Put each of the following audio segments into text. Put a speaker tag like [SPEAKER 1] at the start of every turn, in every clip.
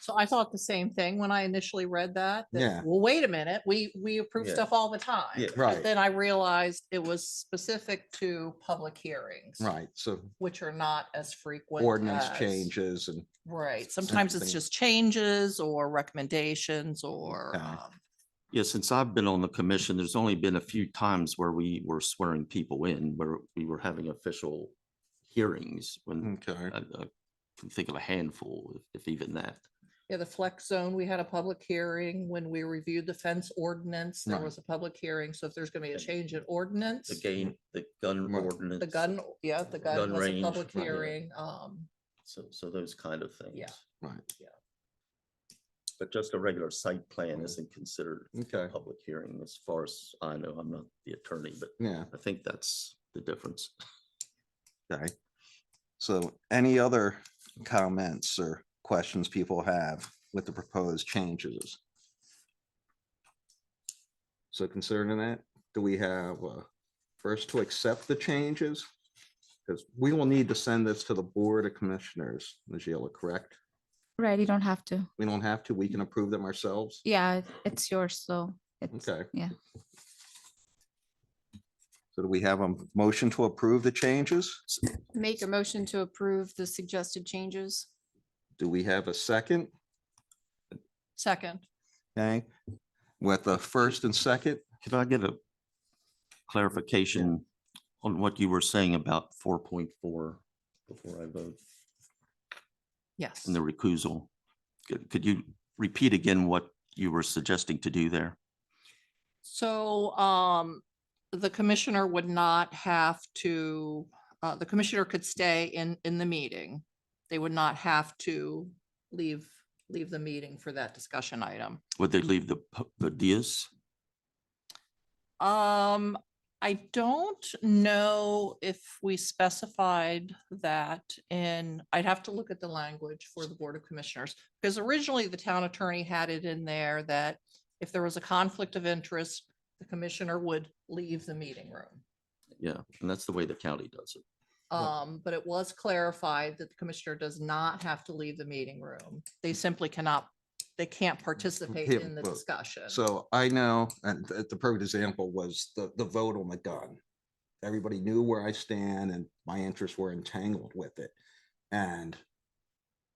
[SPEAKER 1] So I thought the same thing when I initially read that. that,
[SPEAKER 2] Yeah.
[SPEAKER 1] Well, wait a minute, we, we approve
[SPEAKER 3] Yeah.
[SPEAKER 1] stuff all the time.
[SPEAKER 3] Yeah,
[SPEAKER 1] But
[SPEAKER 2] right.
[SPEAKER 1] Then I realized it was specific to public hearings.
[SPEAKER 2] Right, so
[SPEAKER 1] Which are not as frequent.
[SPEAKER 2] ordinance
[SPEAKER 1] as-
[SPEAKER 2] changes and,
[SPEAKER 1] Right, sometimes it's
[SPEAKER 2] Something.
[SPEAKER 1] just changes or recommendations or,
[SPEAKER 2] Okay.
[SPEAKER 1] um,
[SPEAKER 3] Yeah, since I've been on the commission, there's only been a few times where we were swearing people in, where we were having official hearings when
[SPEAKER 2] Mm, okay,
[SPEAKER 3] I I can think of a handful, if- if even that.
[SPEAKER 1] yeah, the flex zone, we had a public hearing when we reviewed the fence ordinance. There
[SPEAKER 2] Right.
[SPEAKER 1] was a public hearing, so if there's gonna be a
[SPEAKER 3] Okay.
[SPEAKER 1] change in ordinance.
[SPEAKER 3] The game, the gun
[SPEAKER 2] Right.
[SPEAKER 3] ordinance.
[SPEAKER 1] The gun, yeah, the
[SPEAKER 3] Gun
[SPEAKER 1] gun was a
[SPEAKER 3] range,
[SPEAKER 1] public
[SPEAKER 3] right.
[SPEAKER 1] hearing, um,
[SPEAKER 3] So, so those kind of things.
[SPEAKER 1] Yeah.
[SPEAKER 2] right,
[SPEAKER 3] But just a regular site plan isn't considered a
[SPEAKER 2] okay,
[SPEAKER 3] public hearing as far as I know. I'm not the attorney, but
[SPEAKER 2] yeah,
[SPEAKER 3] I think that's the difference.
[SPEAKER 2] okay. So any other comments or questions people have with the proposed changes? So concerning that, do we have, uh, first to accept the changes? Because we will need to send this to the Board of Commissioners, Najila, correct?
[SPEAKER 4] Right, you don't have to.
[SPEAKER 2] We don't have to, we can approve them ourselves?
[SPEAKER 4] Yeah, it's yours, so it's,
[SPEAKER 2] Okay.
[SPEAKER 4] yeah.
[SPEAKER 2] So do we have a motion to approve the changes?
[SPEAKER 5] Make a motion to approve the suggested changes.
[SPEAKER 2] Do we have a second?
[SPEAKER 1] second.
[SPEAKER 2] Okay, with the first and second,
[SPEAKER 3] Could I get a clarification on what you were saying about four point four before I vote
[SPEAKER 1] Yes.
[SPEAKER 3] in the recusal? Could, could you repeat again what you were suggesting to do there?
[SPEAKER 1] So um, the commissioner would not have to, uh, the commissioner could stay in, in the meeting. They would not have to leave, leave the meeting for that discussion item.
[SPEAKER 3] Would they leave the, pu- the dais?
[SPEAKER 1] Um, I don't know if we specified that in, I'd have to look at the language for the Board of Commissioners. Because originally the town attorney had it in there that if there was a conflict of interest, the commissioner would leave the meeting room.
[SPEAKER 3] Yeah, and that's the way the county does it.
[SPEAKER 1] Um, but it was clarified that the commissioner does not have to leave the meeting room. They simply cannot, they can't participate
[SPEAKER 2] Yeah,
[SPEAKER 1] in the
[SPEAKER 2] well,
[SPEAKER 1] discussion.
[SPEAKER 2] so I know, and th- the perfect example was the, the vote on the gun. Everybody knew where I stand and my interests were entangled with it. And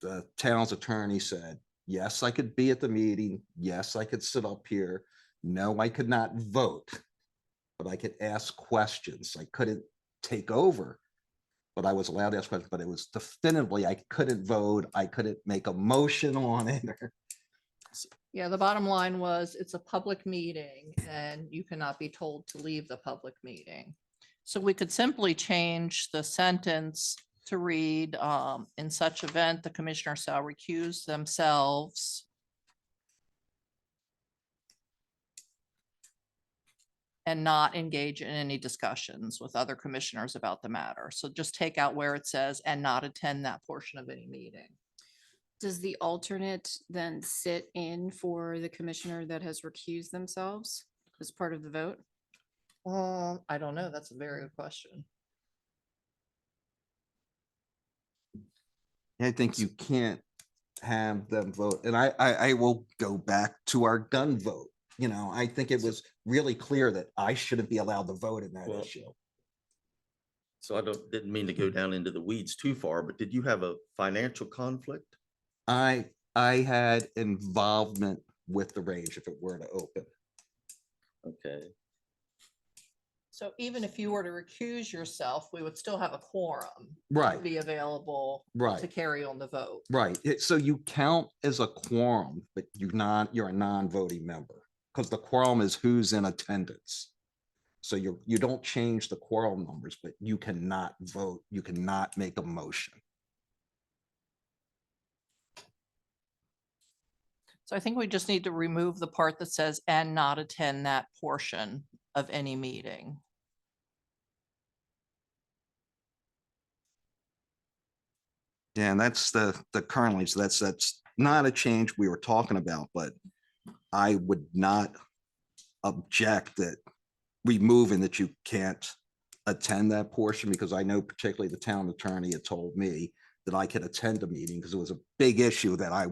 [SPEAKER 2] the town's attorney said, yes, I could be at the meeting. Yes, I could sit up here. No, I could not vote, but I could ask questions. I couldn't take over. But I was allowed to ask questions, but it was definitively, I couldn't vote. I couldn't make a motion on it. or-
[SPEAKER 1] Yeah, the bottom line was it's a public meeting and you cannot be told to leave the public meeting. So we could simply change the sentence to read, um, in such event, the commissioner shall recuse themselves. And not engage in any discussions with other commissioners about the matter. So just take out where it says and not attend that portion of any meeting.
[SPEAKER 5] Does the alternate then sit in for the commissioner that has recused themselves as part of the vote?
[SPEAKER 1] Um, I don't know. That's a very good question.
[SPEAKER 2] I think you can't have them vote, and I, I, I will go back to our gun vote. You know, I think it was really clear that I shouldn't be allowed to vote in that
[SPEAKER 3] Well-
[SPEAKER 2] issue.
[SPEAKER 3] So I don't, didn't mean to go down into the weeds too far, but did you have a financial conflict?
[SPEAKER 2] I, I had involvement with the range if it were to open.
[SPEAKER 3] Okay,
[SPEAKER 1] So even if you were to recuse yourself, we would still have a quorum to
[SPEAKER 2] Right,
[SPEAKER 1] be available to
[SPEAKER 2] right,
[SPEAKER 1] carry on the vote.
[SPEAKER 2] right. It- So you count as a quorum, but you not, you're a non-voting member, because the quorum is who's in attendance. So you're, you don't change the quorum numbers, but you cannot vote, you cannot make a motion.
[SPEAKER 1] So I think we just need to remove the part that says and not attend that portion of any meeting.
[SPEAKER 2] Yeah, and that's the, the currently, so that's, that's not a change we were talking about, but I would not object that removing that you can't attend that portion, because I know particularly the town attorney had told me that I could attend a meeting, because it was a big issue that I